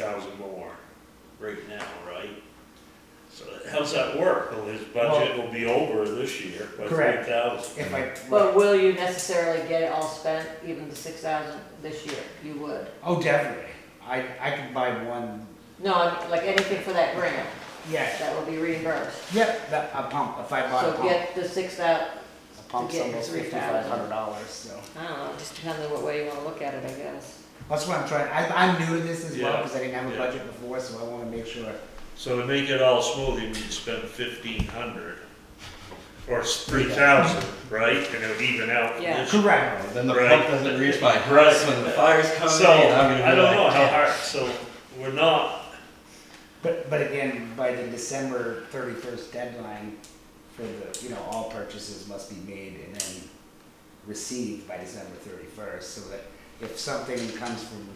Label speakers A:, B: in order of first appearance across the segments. A: thousand more right now, right? So how's that work? Well, his budget will be over this year by three
B: Correct.
A: thousand.
B: If I,
C: But will you necessarily get it all spent, even the six thousand this year? You would.
B: oh, definitely. I, I could buy one,
C: No, I mean, like anything for that grant,
B: yeah,
C: that will be reimbursed.
B: yep, that, a pump, if I bought a
C: So
B: pump.
C: get the six thousand.
B: A pump's
C: get
B: almost
C: three
B: fifty-five
C: thousand.
B: hundred dollars, so.
C: I don't know, it just depends on what way you wanna look at it, I guess.
B: That's what I'm trying, I, I'm new to this as well,
A: Yeah,
B: because I didn't have a
A: yeah.
B: budget before, so I wanna make sure.
A: So to make it all smooth, you need to spend fifteen hundred or three thousand, right? And it'll even out
C: Yeah.
A: this year.
B: Correct.
D: Then the
A: Right.
D: pump doesn't reach my
A: Right.
D: house when the fire's coming
A: So,
D: in. I'm gonna be
A: I don't know
D: like,
A: how
D: "Damn."
A: hard, so we're not,
B: But, but again, by the December thirty-first deadline for the, you know, all purchases must be made and then received by December thirty-first, so that if something comes from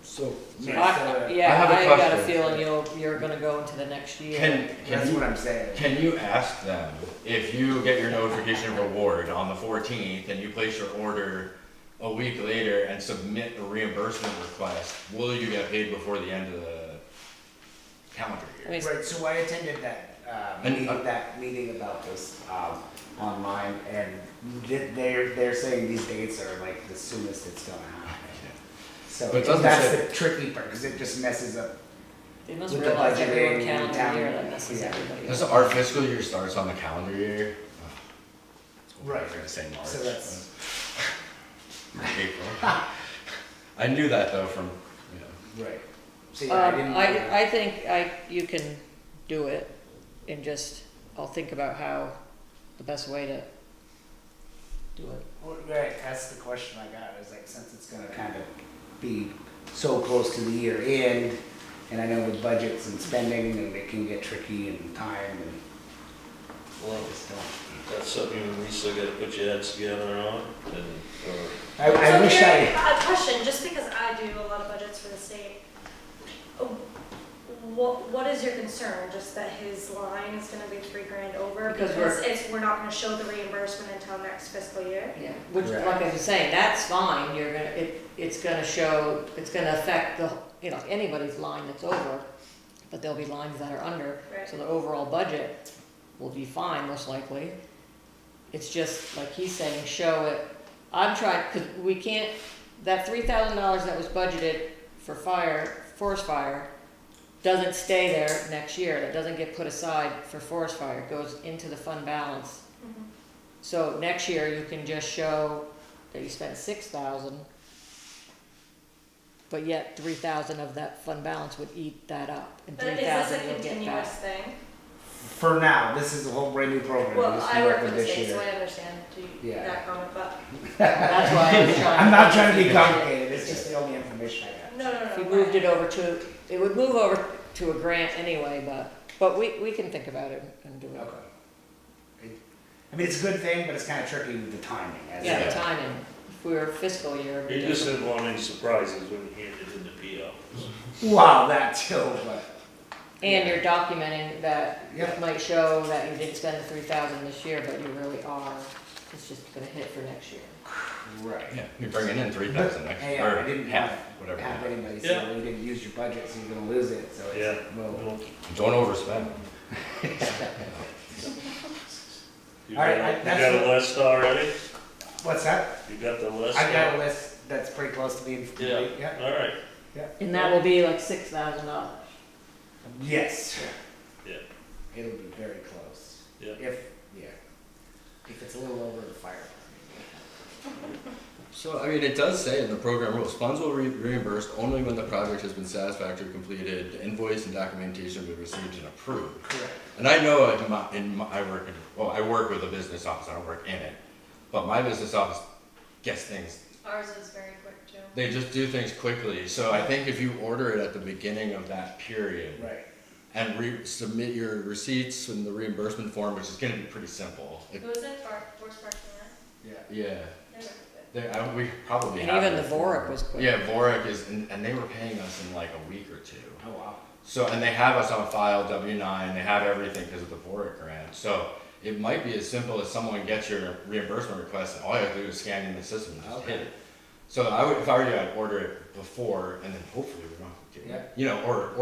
D: So
C: I-
B: Minnesota,
D: uh, I
C: Yeah,
D: have a
C: I got a
D: question.
C: feeling you'll, you're gonna go into the next year.
D: can can
B: that's what
D: you
B: I'm saying.
D: can you ask them if you get your notification of reward on the 14th and you place your order a week later and submit a reimbursement request, will you get paid before the end of the calendar
C: I
D: year?
C: mean,
B: Right, so I attended that, uh,
D: And, uh,
B: meeting, that meeting about this, um, online, and th- they're, they're saying these dates are like the soonest it's gonna happen. So
D: But it doesn't
B: that's
D: say-
B: the tricky part, cause it just messes up,
C: they must
B: with the
C: realize
B: budget
C: everyone
B: and
C: calendar
B: town-
C: year that messes
B: yeah.
C: everybody
D: Does
C: up.
D: our fiscal year starts on the calendar year? Oh, I was
B: Right.
D: gonna say March.
B: so that's,
D: but- April. I knew that though from you know.
B: right. So yeah, I
C: Um,
B: didn't.
C: I, I think I, you can do it and just, I'll think about how, the best way to do it.
B: Well, Right, that's the question I got, is like, since it's gonna kind of be so close to the year end, and I know with budgets and spending, and it can get tricky and time and. Well, it's not.
A: that's something you and Lisa gotta put your heads together on and, or
B: I, I
E: So
B: wish
E: here-
B: I,
E: A question, just because I do a lot of budgets for the state, uh, what, what is your concern? Just that his line is gonna be three grand over?
C: Because
E: it's, we're not gonna show the reimbursement until next fiscal year?
C: Yeah, which,
B: Correct.
C: like I was saying, that's fine, you're gonna, it, it's gonna show, it's gonna affect the, you know, anybody's line that's over, but there'll be lines that are under, so
E: Right.
C: the overall budget will be fine, most likely. It's just, like he's saying, show it, I'm trying, cause we can't, that three thousand dollars that was budgeted for fire, forest fire, doesn't stay there next year, that doesn't get put aside for forest fire, It goes into the fund balance.
E: Mhm.
C: Mm-hmm. So next year, you can just show that you spent six thousand, but yet three thousand of that fund balance would eat that up, and
E: But
C: three
E: is this a
C: thousand you'll get
E: continuous
C: back.
E: thing?
B: for now, this is a whole brand new program.
E: Well,
B: This is
E: I
B: what
E: work
B: we
E: for the
B: did this
E: state,
B: year.
E: so I understand to-
B: Yeah.
E: that comment, but,
C: That's why I was trying.
B: I'm not trying to be complicated, it's just the only information I got.
E: no, no, no.
C: If you
E: no,
C: moved
E: fine.
C: it over to, it would move over to a grant anyway, but, but we, we can think about it and do it.
B: Okay. It- I mean, it's a good thing, but it's kind of tricky with the timing. as
C: Yeah,
B: it-
C: the timing, if we were fiscal year. it'd be
A: you just
C: different.
A: didn't want any surprises when you handed in the PO.
B: Wow, that too, but,
C: And you're documenting that,
B: Yeah.
C: it might show that you didn't spend the three thousand this year, but you really are, it's just gonna hit for next year.
B: right.
D: Yeah, you're bringing in three
B: But,
D: thousand next
B: hey,
D: or
B: I didn't
D: half,
B: have,
D: whatever.
B: have anybody say,
A: Yeah.
B: well, you didn't use your budget, so you're gonna lose it, so
A: Yeah.
B: it's, well.
D: Don't overspend.
A: You
B: All right,
A: got-
B: I-
A: You
B: that's
A: got a
B: what-
A: list already?
B: What's that?
A: You got the list?
B: I got a list that's pretty close to being
A: Yeah,
B: complete, yeah,
A: all right,
B: yeah.
C: And that will be like six thousand dollars.
B: Yes.
A: Yeah.
B: It'll be very close.
A: Yeah.
B: If, yeah. If it's a little over the fire.
D: So, I mean, it does say in the program rules, funds will be reimbursed only when the project has been satisfactorily completed, invoice and documentation will be received and approved.
B: Correct.
D: And I know in my, in my, I work, in well, I work with a business office, I don't work in it, but my business office gets things,
E: Ours is very quick too.
D: they just do things quickly. So I think if you order it at the beginning of that period
B: Right.
D: and re- submit your receipts and the reimbursement form, which is gonna be pretty simple. It-
E: Who is it, Bar, Forest Park, Center?
B: Yeah.
D: Yeah.
E: They're good.
D: They, I, we probably
C: And
D: have
C: even
D: it
C: the Vorik
D: for-
C: was quick.
D: Yeah, Vorik is, and, and they were paying us in like a week or two.
B: Oh wow.
D: So, and they have us on file W nine. They have everything because of the Vorik grant. So it might be as simple as someone gets your reimbursement request, and all you have to do is scan in the system and just
B: Okay.
D: hit it. So I would, if I were you, I'd order it before, and then hopefully we don't have to
B: Yeah.
D: You know, or,